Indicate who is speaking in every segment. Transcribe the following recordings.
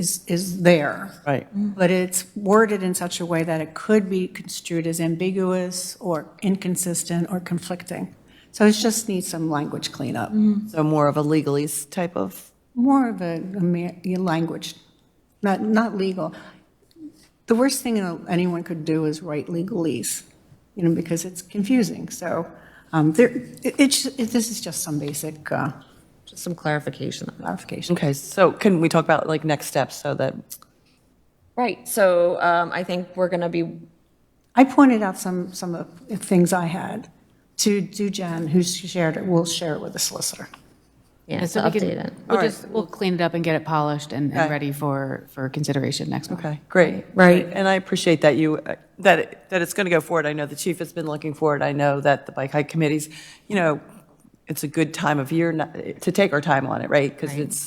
Speaker 1: is, is there.
Speaker 2: Right.
Speaker 1: But it's worded in such a way that it could be construed as ambiguous or inconsistent or conflicting. So it just needs some language cleanup,
Speaker 2: Mm-hmm. So more of a legalese type of,
Speaker 1: more of a, a ma- a language, not, not legal. The worst thing anyone could do is write legalese, you know, because it's confusing. So um, there, it- it's, it- this is just some basic uh,
Speaker 3: Just some clarification on that.
Speaker 1: clarification.
Speaker 2: okay, so can we talk about like next steps so that,
Speaker 3: Right, so um, I think we're going to be,
Speaker 1: I pointed out some, some of the things I had to, to Jen, who shared it, will share it with the solicitor.
Speaker 3: yeah,
Speaker 4: Yeah,
Speaker 3: to
Speaker 4: so we
Speaker 3: update
Speaker 4: can,
Speaker 3: it.
Speaker 4: we'll just, we'll clean it up and get it polished and,
Speaker 2: Okay.
Speaker 4: and ready for, for consideration next month.
Speaker 2: okay, great.
Speaker 3: Right.
Speaker 2: And I appreciate that you, uh, that, it- that it's going to go forward. I know the chief has been looking for it. I know that the bike hike committees, you know, it's a good time of year not- to take our time on it, right? Because it's,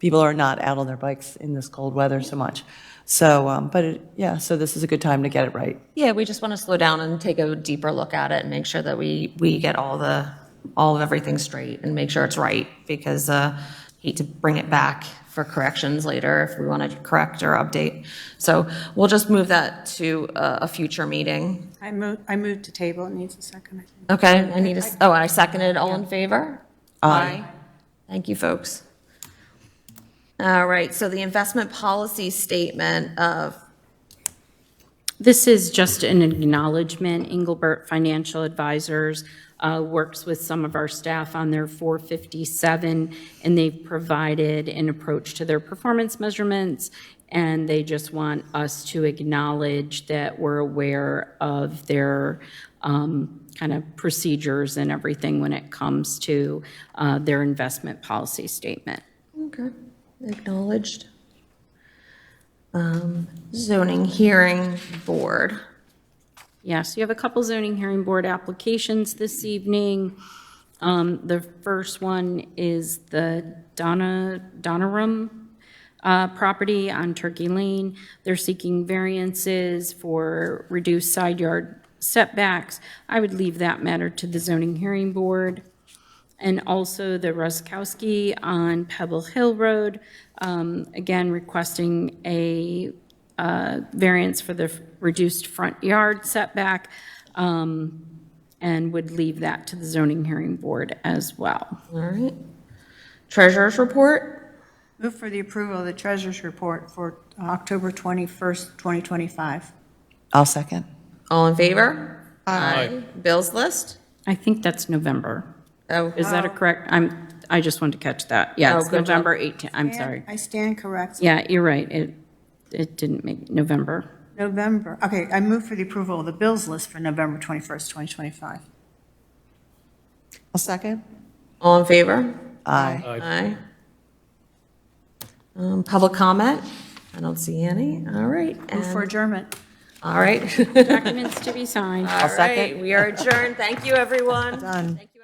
Speaker 2: people are not out on their bikes in this cold weather so much. So, um, but it- yeah, so this is a good time to get it right.
Speaker 3: Yeah, we just want to slow down and take a deeper look at it and make sure that we, we get all the, all of everything straight and make sure it's right, because uh, hate to bring it back for corrections later if we want to correct or update. So we'll just move that to uh, a, a future meeting.
Speaker 1: I moved, I moved to table, it needs a second. I think.
Speaker 3: Okay, I need to, s- oh, and I seconded, all in favor? Aye. Thank you, folks. All right, so the investment policy statement of
Speaker 5: This is just an acknowledgement. Engelbert Financial Advisors uh, works with some of our staff on their 457, and they've provided an approach to their performance measurements, and they just want us to acknowledge that we're aware of their um, kind of procedures and everything when it comes to uh, their investment policy statement.
Speaker 3: Okay, acknowledged. Um, Zoning Hearing Board.
Speaker 5: Yes, you have a couple zoning hearing board applications this evening. Um, The first one is the Donna, Donnerum uh, property on Turkey Lane. They're seeking variances for reduced side yard setbacks. I would leave that matter to the zoning hearing board. And also the Ruskowski on Pebble Hill Road, um, again requesting a uh, variance for the f- reduced front yard setback, um, and would leave that to the zoning hearing board as well.
Speaker 3: All right. Treasurer's Report.
Speaker 1: Move for the approval of the treasurer's report for October 21st, 2025.
Speaker 2: I'll second.
Speaker 3: All in favor? Aye. Bills List.
Speaker 5: I think that's November.
Speaker 3: Oh,
Speaker 5: Is that a correct, I'm, I just wanted to catch that.
Speaker 3: Oh,
Speaker 5: Yeah, it's
Speaker 3: good job.
Speaker 5: November 18, I'm sorry.
Speaker 1: I stand corrected.
Speaker 5: Yeah, you're right, it, it didn't make November.
Speaker 1: November, okay, I move for the approval of the bills list for November 21st, 2025.
Speaker 2: I'll second.
Speaker 3: all in favor?
Speaker 2: Aye.
Speaker 3: Aye. Um, Public comment? I don't see any. All right.
Speaker 1: Move for
Speaker 3: and-
Speaker 1: adjournment.
Speaker 3: All right.
Speaker 5: Documents to be signed.
Speaker 3: All
Speaker 2: second.
Speaker 3: right, we are adjourned. Thank you, everyone.
Speaker 2: Done.
Speaker 3: Thank you.